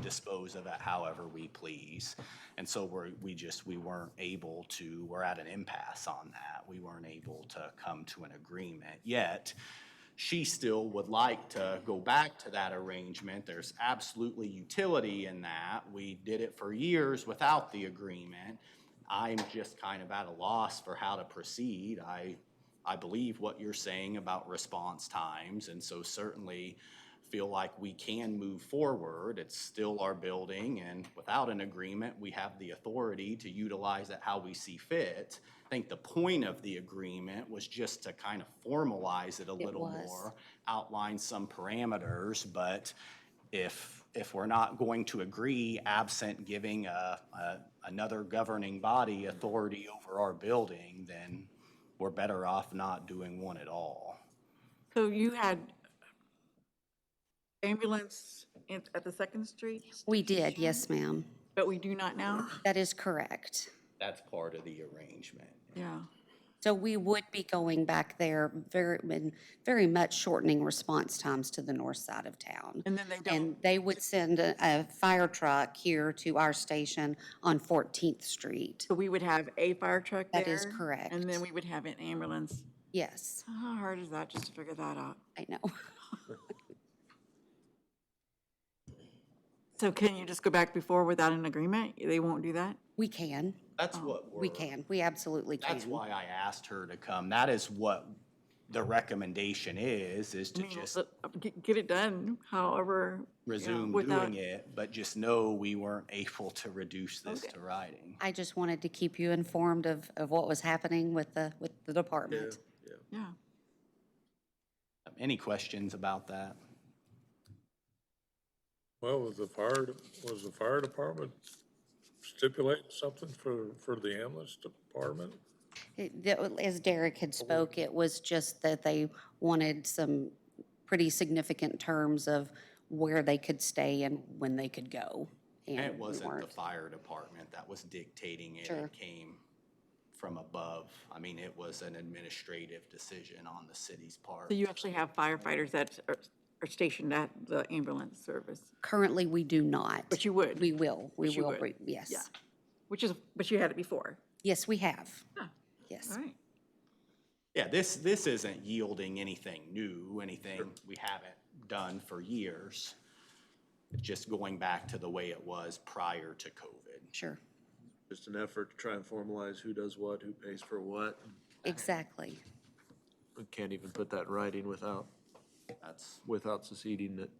dispose of it however we please. And so we're, we just, we weren't able to, we're at an impasse on that. We weren't able to come to an agreement yet. She still would like to go back to that arrangement. There's absolutely utility in that. We did it for years without the agreement. I'm just kind of at a loss for how to proceed. I, I believe what you're saying about response times, and so certainly feel like we can move forward. It's still our building, and without an agreement, we have the authority to utilize it how we see fit. I think the point of the agreement was just to kind of formalize it a little was. more, outline some parameters, but if, if we're not going to agree absent giving a, a, another governing body authority over our building, then we're better off not doing one at all. So you had ambulance in- at the Second Street, We did, yes, ma'am. but we do not now? That is correct. That's part of the arrangement. Yeah. So we would be going back there very, and very much shortening response times to the north side of town. And then they And don't, they would send a, a fire truck here to our station on Fourteenth Street. so we would have a fire truck there? That is correct. And then we would have an ambulance. Yes, How hard is that just to figure that out? I know. So can you just go back before without an agreement? They won't do that? We can, That's what we're. we can, we absolutely can. That's why I asked her to come. That is what the recommendation is, is to I mean, just let- get- Get it done, however. you know, resume without- doing it, but just know we weren't able to reduce this Okay. to writing. I just wanted to keep you informed of, of what was happening with the, with the department. Yeah. Any questions about that? Well, was the fire, was the fire department stipulating something for, for the ambulance department? It- that- As Derek had spoke, it was just that they wanted some pretty significant terms of where they could stay and when they could go. And It we wasn't the weren't. fire department that was dictating it. Sure. It came from above. I mean, it was an administrative decision on the city's part. So you actually have firefighters that are are stationed at the ambulance service, Currently, we do not. but you would? We will, we But you will, would. re- Yeah. yes. Which is, but you had it before. Yes, we have. Yes. All right. Yeah, this, this isn't yielding anything new, anything we haven't done for years. It's Just going back to the way it was prior to COVID. Sure, Just an effort to try and formalize who does what, who pays for what. exactly. We can't even put that in writing without, That's, without seceding it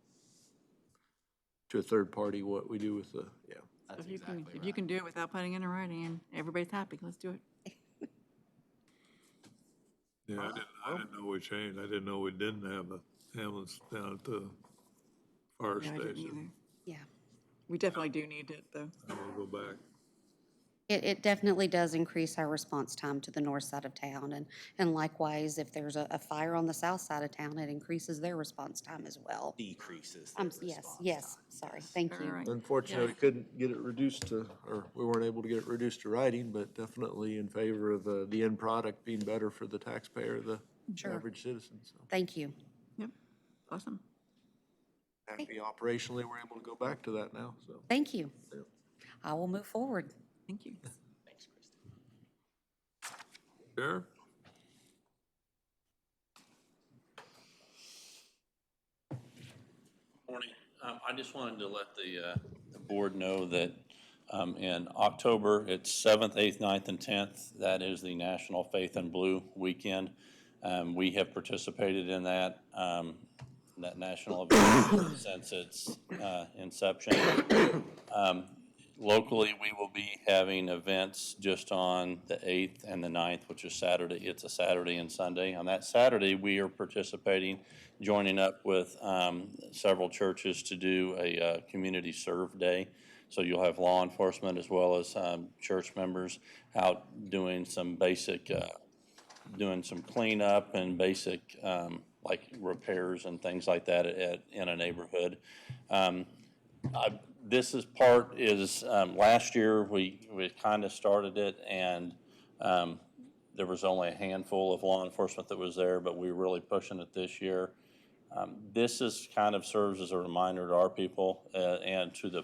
to a third party, what we do with the, yeah. that's If you exactly can, right. if you can do it without putting it in writing, and everybody's happy, let's do it. Yeah, I didn't, I didn't know we changed. I didn't know we didn't have a ambulance down at the fire Yeah, I didn't either. station. Yeah. We definitely do need it, though. I will go back. It, it definitely does increase our response time to the north side of town, and, and likewise, if there's a, a fire on the south side of town, it increases their response time as well. Decreases their Um, yes, response yes, time. sorry, thank All you. right. Unfortunately, we couldn't get it reduced to, or we weren't able to get it reduced to writing, but definitely in favor of the, the end product being better for the taxpayer, the average citizen, so. Thank you. Yep, awesome. Happy operationally, we're able to go back to that now, so. Thank you. I will move forward. Thank you. Thanks, Kristen. Sheriff? Morning. Um, I just wanted to let the, uh, the board know that, um, in October, it's seventh, eighth, 9th, and tenth. That is the National Faith and Blue Weekend. Um, we have participated in that, um, that national event since its, uh, inception. Um, Locally, we will be having events just on the 8th and the 9th, which is Saturday. It's a Saturday and Sunday. On that Saturday, we are participating, joining up with um, several churches to do a uh, community serve day. So you'll have law enforcement as well as um, church members out doing some basic uh, doing some cleanup and basic, um, like repairs and things like that at, in a neighborhood. Um, I- This is part is, um, last year, we, we kind of started it and, um, there was only a handful of law enforcement that was there, but we were really pushing it this year. Um, This is kind of serves as a reminder to our people, uh, and to the